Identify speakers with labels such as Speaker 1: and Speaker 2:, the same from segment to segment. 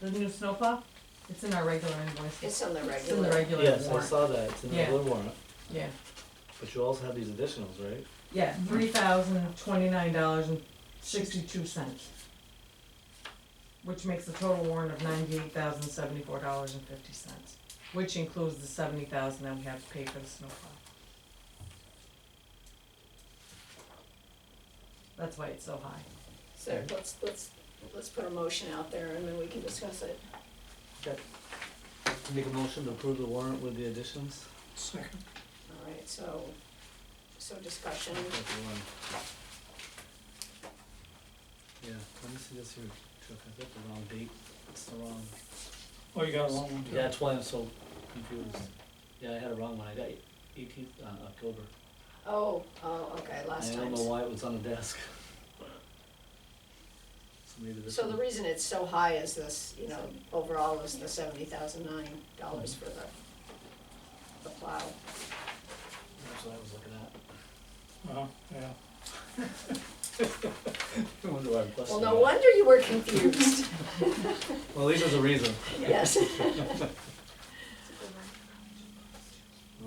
Speaker 1: the new snowplow, it's in our regular invoice.
Speaker 2: It's in the
Speaker 1: It's in the
Speaker 2: regular.
Speaker 1: regular
Speaker 3: Yes, I
Speaker 1: warrant.
Speaker 3: saw that, it's in the
Speaker 1: Yeah.
Speaker 3: blue warrant,
Speaker 1: Yeah,
Speaker 3: but you also have these additionals, right?
Speaker 1: yeah, three thousand twenty-nine dollars and sixty-two cents. Which makes the total warrant of ninety-eight thousand seventy-four dollars and fifty cents, which includes the seventy thousand that we have to pay for the snowplow. That's why it's so high.
Speaker 2: So let's, let's, let's put a motion out there and then we can discuss it.
Speaker 3: Make a motion to approve the warrant with the additions?
Speaker 4: Second.
Speaker 2: All right, so, so discussion,
Speaker 3: That's the one. Yeah, let me see this here, Chuck, I got the wrong date, it's the wrong.
Speaker 4: Oh, you got a long one too?
Speaker 3: Yeah, that's why I'm so confused. Yeah, I had a wrong one, I got eighteenth, uh, October.
Speaker 2: oh, oh, okay, last
Speaker 3: I don't
Speaker 2: time.
Speaker 3: know why it was on the desk. So maybe this
Speaker 2: So the
Speaker 3: one,
Speaker 2: reason it's so high is this, you know, overall is the seventy thousand nine dollars for the, the plow.
Speaker 3: that's what I was looking at.
Speaker 4: Uh-huh, yeah.
Speaker 3: I wonder why
Speaker 2: Well,
Speaker 3: I'm questioning
Speaker 2: no
Speaker 3: that.
Speaker 2: wonder you were confused,
Speaker 3: Well, at least there's a reason.
Speaker 2: yes.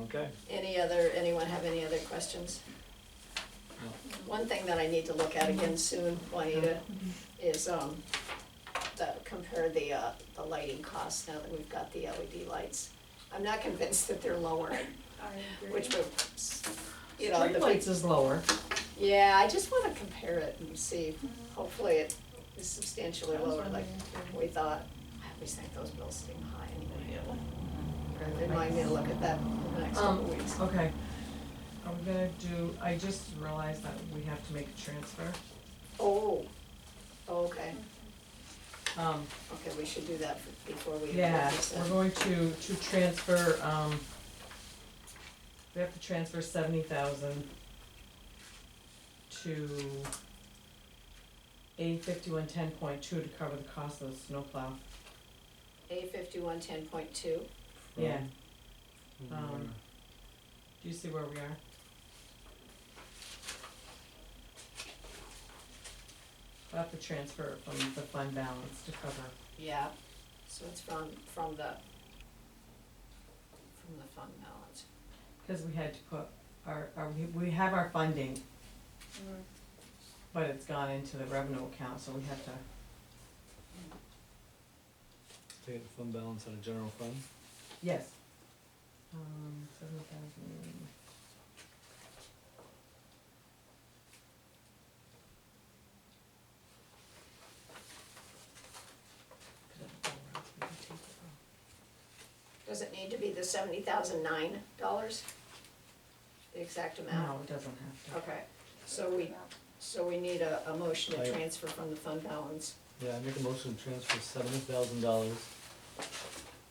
Speaker 3: Okay.
Speaker 2: Any other, anyone have any other questions?
Speaker 3: No.
Speaker 2: One thing that I need to look at again soon, Juanita, is, um, the, compare the, uh, the lighting costs now that we've got the LED lights. I'm not convinced that they're lower, which would, you know, the big
Speaker 1: Streetlights is lower.
Speaker 2: Yeah, I just wanna compare it and see, hopefully it is substantially lower like we thought. I always think those bills seem high anyway. Remind me to look at that in the next couple
Speaker 1: Um,
Speaker 2: weeks.
Speaker 1: Okay. Are we gonna do, I just realized that we have to make a transfer.
Speaker 2: Oh, okay,
Speaker 1: Um,
Speaker 2: okay, we should do that f- before we.
Speaker 1: yeah,
Speaker 2: approve this.
Speaker 1: we're going to, to transfer, um, we have to transfer seventy thousand to A fifty-one ten point two to cover the cost of the snowplow.
Speaker 2: A fifty-one ten point two,
Speaker 1: Yeah,
Speaker 3: From-
Speaker 1: Um, do you see where we are? We have to transfer it from the fund balance to cover
Speaker 2: yeah, so it's from, from the, from the fund balance.
Speaker 1: Cause we had to put our, our, we- we have our funding, but it's gone into the revenue account, so we have to,
Speaker 3: Take the fund balance out of general fund.
Speaker 1: yes. Um, seven thousand.
Speaker 2: Does it need to be the seventy thousand nine dollars? The exact amount?
Speaker 1: No, it doesn't have to.
Speaker 2: Okay, so we, so we need a, a motion
Speaker 3: I-
Speaker 2: to transfer from the fund balance.
Speaker 3: Yeah, I make a motion to transfer seventy thousand dollars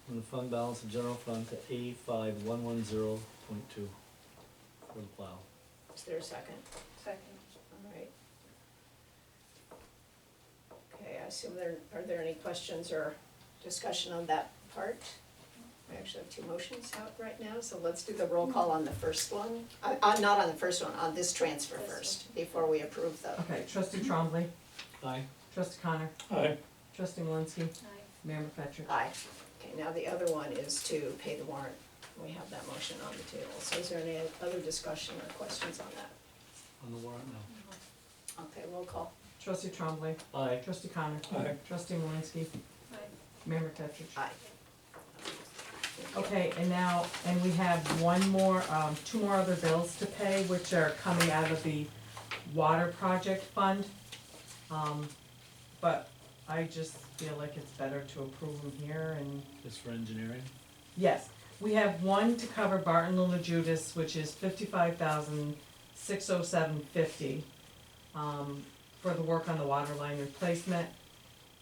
Speaker 3: from the fund balance of general fund to A five one one zero point two for the plow.
Speaker 2: Is there a second?
Speaker 5: Second.
Speaker 2: All right. Okay, I assume there, are there any questions or discussion on that part? We actually have two motions out right now, so let's do the roll call on the first one. I, I'm not on the first one, on this transfer
Speaker 5: This one.
Speaker 2: first, before we approve the,
Speaker 1: Okay, trustee Trombley,
Speaker 3: Aye.
Speaker 1: trustee Connor,
Speaker 4: Aye,
Speaker 1: trustee Malinsky,
Speaker 5: Aye.
Speaker 1: mayor McFetrich.
Speaker 2: aye. Okay, now the other one is to pay the warrant. We have that motion on the table. So is there any other discussion or questions on that?
Speaker 3: On the warrant now.
Speaker 2: Okay, roll call.
Speaker 1: Trustee Trombley,
Speaker 3: Aye.
Speaker 1: trustee Connor,
Speaker 4: aye.
Speaker 1: trustee Malinsky,
Speaker 5: Aye.
Speaker 1: mayor McFetrich.
Speaker 2: Aye.
Speaker 1: Okay, and now, and we have one more, um, two more other bills to pay, which are coming out of the water project fund. Um, but I just feel like it's better to approve them here and,
Speaker 3: Just for engineering.
Speaker 1: yes. We have one to cover Barton Little Judas, which is fifty-five thousand, six oh seven fifty, um, for the work on the water line replacement.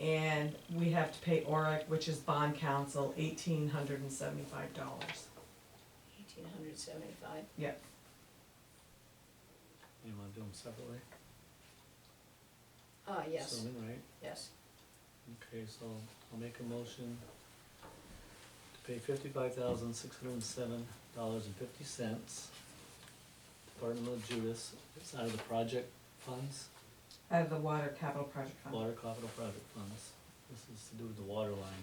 Speaker 1: And we have to pay ORAC, which is bond council, eighteen hundred and seventy-five dollars.
Speaker 2: Eighteen hundred seventy-five.
Speaker 3: You wanna do them separately?
Speaker 2: Ah, yes,
Speaker 3: So, right,
Speaker 2: yes.
Speaker 3: okay, so I'll make a motion to pay fifty-five thousand, six hundred and seven dollars and fifty cents to Barton Little Judas, it's out of the project funds,
Speaker 1: Out of the water capital project fund.
Speaker 3: water capital project funds. This is to do with the water line.